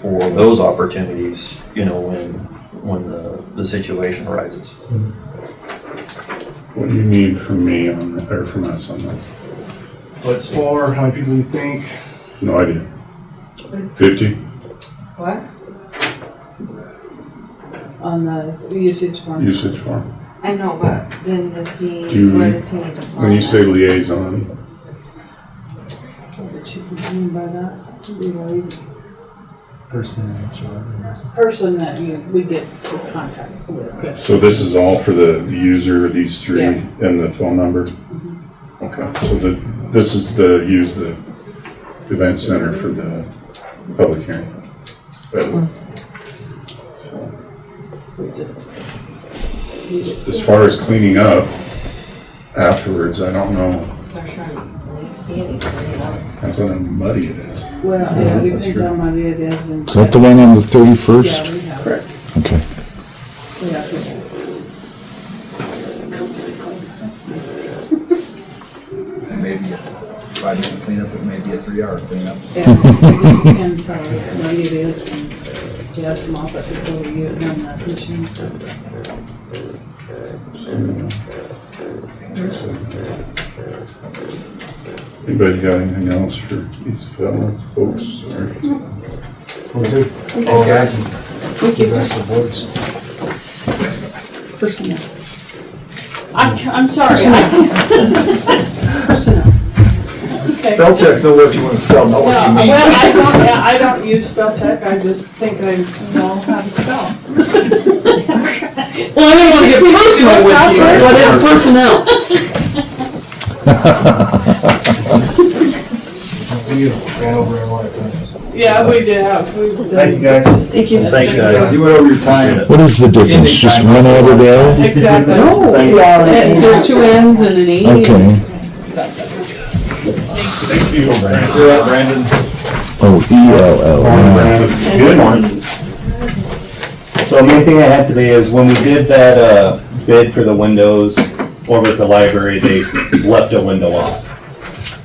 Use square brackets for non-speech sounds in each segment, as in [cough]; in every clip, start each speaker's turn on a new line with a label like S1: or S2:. S1: for those opportunities, you know, when, when the, the situation arises.
S2: What do you need from me on, that, or from us on that?
S3: What's for, how many people you think?
S2: No idea.
S4: With
S2: Fifty?
S4: what? On the usage form.
S2: Usage form.
S4: I know, but then does he,
S2: Do you-
S4: where does he need to sign?
S2: When you
S4: at?
S2: say liaison,
S5: What you can mean by that, to be lazy.
S3: Person in HR.
S5: person that you, we get to contact with.
S2: so this is all for the user, these three,
S5: Yeah.
S2: and the phone number? Okay, so the, this is the, use the event center for the public hearing. But
S5: We just,
S2: as far as cleaning up afterwards, I don't know,
S4: For sure. He needs to clean up.
S2: depends on how muddy it is.
S5: well, yeah, it
S2: That's
S5: depends
S2: true.
S5: on what it is and.
S6: Is that the one on the
S5: Yeah,
S6: 31st?
S5: we have,
S2: Correct.
S6: Okay.
S5: we have people.
S7: Maybe a five minute cleanup, it may be a three hour cleanup.
S5: And we just can tell what it is and you have them off at the door, you have done that machine.
S2: Anybody got anything else for these fellows, folks, or?
S3: All guys, the rest of the boards.
S5: Personnel. I'm, I'm sorry, I can't. [laughs] Personnel. Okay.
S7: Spell checks, no what you want to spell, not what
S5: No,
S7: you mean.
S5: well, I don't, yeah, I don't use spell check, I just think I know how to spell.
S8: Well, I don't want to get personal with you, but it's personnel.
S3: We ran over a lot of times.
S5: Yeah, we did have, we've
S3: Thank you,
S5: done,
S3: guys.
S8: Thank you.
S1: Thanks, guys.
S7: You went over your time.
S6: What is the difference? Just one hour there?
S5: exactly. And There's two N's and an E.
S6: Okay.
S2: Thank you.
S7: You're up, Brandon.
S6: Oh, E-L-L.
S2: Good morning.
S9: So the main thing I had today is when we did that uh, bid for the windows over at the library, they left a window off.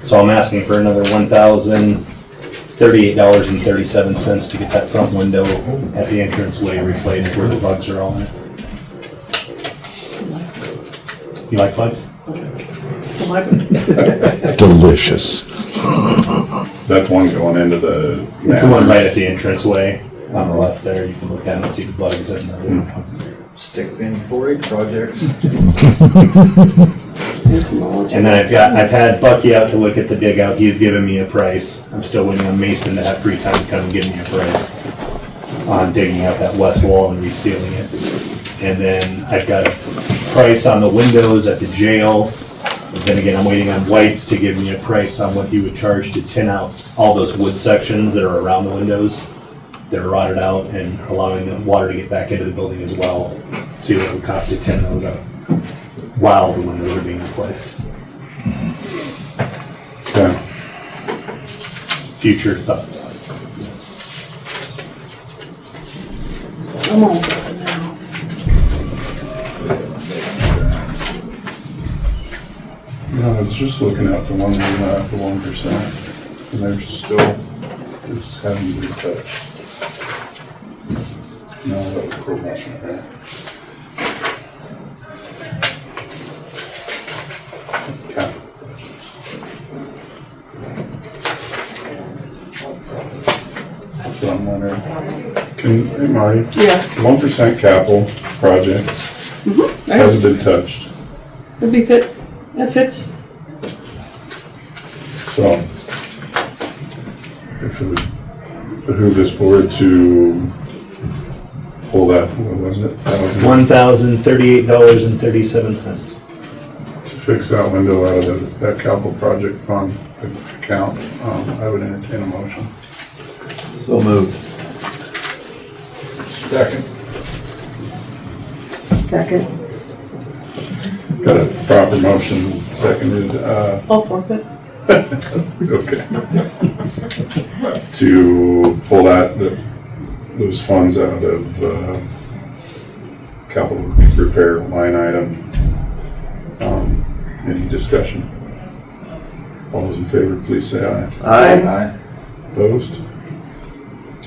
S9: So I'm asking for another one thousand thirty-eight dollars and thirty-seven cents to get that front window at the entranceway replaced where the bugs are all in. You like bugs?
S6: Delicious.
S2: Is that the one going into the?
S9: It's the one right at the entranceway on the left there. You can look down and see the bugs in the
S7: Stick pin four H projects.
S9: And then I've got, I've had Bucky out to look at the dig out, he's given me a price. I'm still waiting on Mason to have free time to come and give me a price on digging out that west wall and resealing it. And then I've got a price on the windows at the jail. And Then again, I'm waiting on White's to give me a price on what he would charge to tin out all those wood sections that are around the windows that are rotted out and allowing the water to get back into the building as well. See what it would cost to tin those out while the windows are being replaced.
S2: Okay.
S9: future thoughts on it. Yes.
S5: Come on.
S2: No, I was just looking at the one, uh, the one percent, and they're still, it's having to be touched. No, that was probation, right? Okay. So I'm wondering, can, hey Marty,
S5: Yes,
S2: one percent capital project
S5: Mm-hmm.
S2: hasn't been touched,
S5: would be fit, that fits.
S2: so. If it would behoove this board to pull that, what was it? That was it.
S9: One thousand thirty-eight dollars and thirty-seven cents.
S2: To fix that window out of the- that capital project fund account, um, I would entertain a motion.
S1: So moved.
S7: Second.
S4: Second.
S2: Got a proper motion seconded, uh,
S5: I'll forfeit.
S2: Okay. To pull that, the- those funds out of uh, capital repair line item. Um, Any discussion? All those in favor, please say aye.
S1: Aye.
S7: Aye.
S2: Opposed?